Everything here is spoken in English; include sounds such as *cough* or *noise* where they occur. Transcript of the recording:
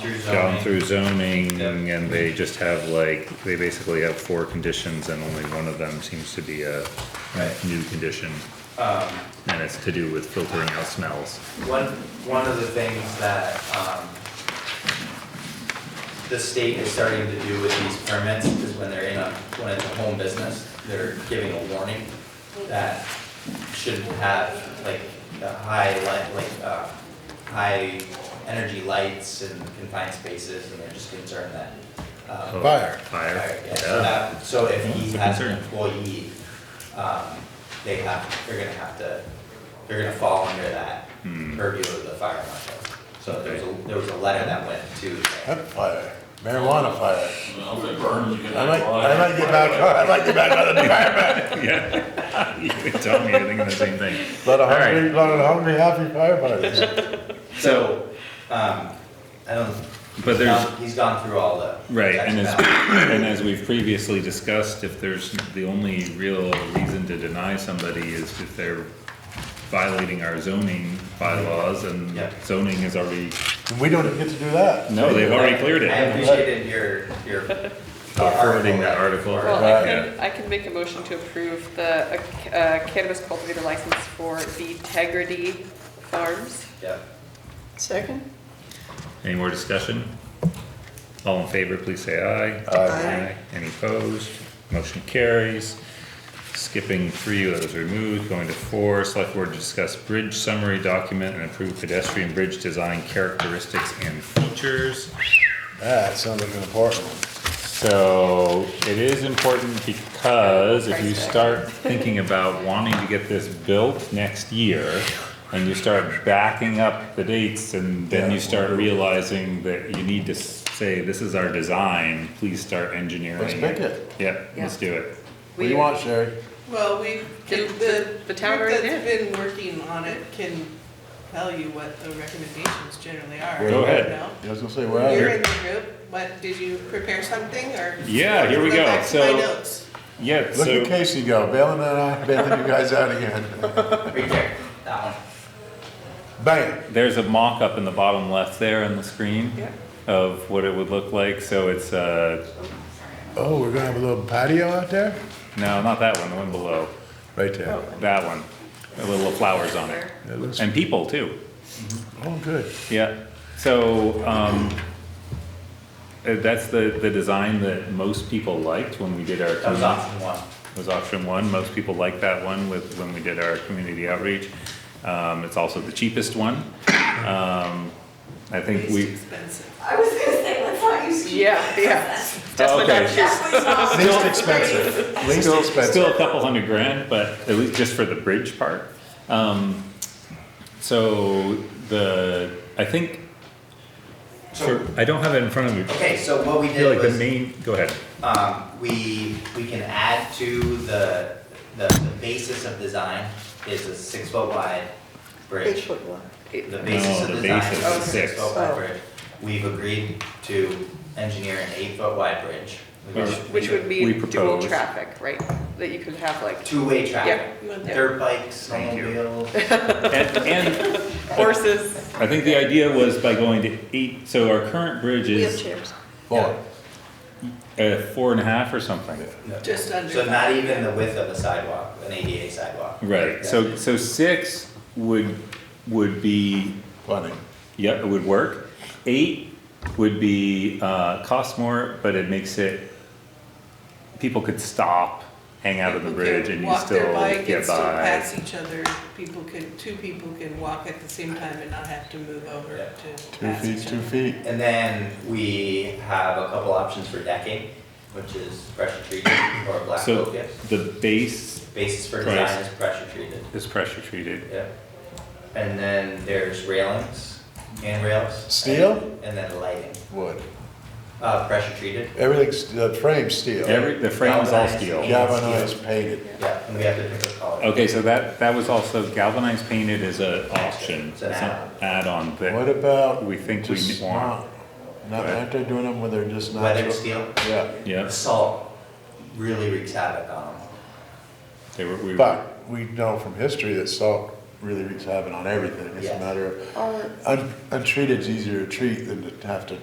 through gone zoning. through zoning Yeah. and they just have like, they basically have four conditions and only one of them seems to be a Right. Um, new condition. And it's to do with filtering out smells. One, one of the things that, um, the state is starting to do with these permits is when they're in a, when it's a home business, they're giving a warning that should have like the high light, like, uh, high energy lights and confined spaces, and they're just concerned that, Oh. um, Fire. Fire, yeah, so yeah. that, so if he That's a has an concern. employee, um, they have, they're gonna have to, they're gonna fall under that Hmm. purview of the fire marshal. So there was, Okay. a- there was a letter that went to, Hemp fire, marijuana fire. Well, if it burns, you can. I might, I might get back, I might get back on the fireman. Yeah. *laughs* You could tell me, I think the same thing. Lot of All right. hungry, lot of hungry, happy firefighters. so, um, I don't. But he's there's- gone- He's gone through all the. Right, and as, sections. and as we've previously discussed, if there's, the only real reason to deny somebody is if they're violating our zoning bylaws and Yeah. zoning has already, *laughs* And we don't even get to do that. no, they've already cleared I it. appreciated your, *laughs* your. Forwarding that article. Well, I Yeah. can, I can make a motion to approve the uh, ca- uh, cannabis cultivator license for the Tegrity Farms. Yeah, Second? Any more discussion? All in favor, please say aye. Aye. Any opposed? Motion carries. Skipping three, that was removed, going to four, select board to discuss bridge summary document and approve pedestrian bridge design characteristics and features. Ah, That sounds like an important one. So it is important because if you Price tag. start thinking about wanting to get this built next year and you start backing up the dates and then you start realizing that you need to say, this is our design, please start engineering. Let's pick it. Yep, let's do it. What do you want, Sherry? Well, we've, The- the, the- the the town group already that's did. been working on it can tell you what the recommendations generally are. Go you ahead. know? I was gonna say, where are You're you? in the group, but did you prepare something or? Yeah, here we Go go. back to So- my notes. Yeah, Look at so, Casey go, bailing that out, bailing you guys out again. *laughs* right there, that one. Bam. there's a mock-up in the bottom left there on the screen Yeah. of what it would look like, so it's, uh, Oh, we're gonna have a little patio out there? no, not that one, the one below, Right there. that one, with little flowers on it. That looks, And people too. oh, good. Yeah, so, um, uh, that's the, the design that most people liked when we did our. That was option one. was option one, most people liked that one with, when we did our community outreach. Um, it's also the *coughs* cheapest one. Um, I think Least we, expensive. I was gonna say, let's not use cheap. *laughs* Yeah, yeah. Oh, Definitely Okay. not cheap. Least expensive, least still, expensive. still a couple hundred grand, but at least just for the bridge part. Um, so the, I think, So, I don't have it in front of me. okay, so what we I feel did like the was. main, go ahead. um, we, we can add to the, the, the basis of design is a six foot wide Eight bridge. foot one. The basis No, of Oh, the design basis is is a six six. foot wide Oh. bridge. We've agreed to engineer an eight foot wide bridge. We've Which- already- Which would We mean dual propose- traffic, right? That you could have like Two way traffic, You want that? dirt bikes, Thank you. snowmobiles, And, and horses, I think the idea was by going to eight, so our current bridge is Wheelchairs. Boy, uh, four and a half or something. Just under. so not even the width of a sidewalk, an ADA sidewalk. Right, so, so six would, would be, funny. yep, it would work. Eight would be, uh, cost more, but it makes it, people could stop, hang out on the People bridge can and you walk their still bike and get still by. Pass each other, people can, two people can walk at the same time and not have to move over Yeah. to Two pass feet, each two other. feet. And then we have a couple options for decking, which is pressure treated or black So oak, yes. the base Basis for Price. design is pressure treated, is pressure treated. yeah. And then there's railings, handrails. Steel? And then lighting, Wood. uh, pressure treated, Everything's, the frame's steel. Every, the frame is all Galvanized. steel. Galvanized painted. yeah, and we have to pick a color. Okay, so that, that was also galvanized painted as an option, It's it's an an add-on What that, about? We think we just want- not- Not, aren't they doing them where they're just not? Weathered steel, Yeah, yeah, salt really wreaks havoc on them. they were, we, but we know from history that salt really wreaks havoc on everything. It's Yeah. a matter of, Or un- untreated's easier to treat than to have to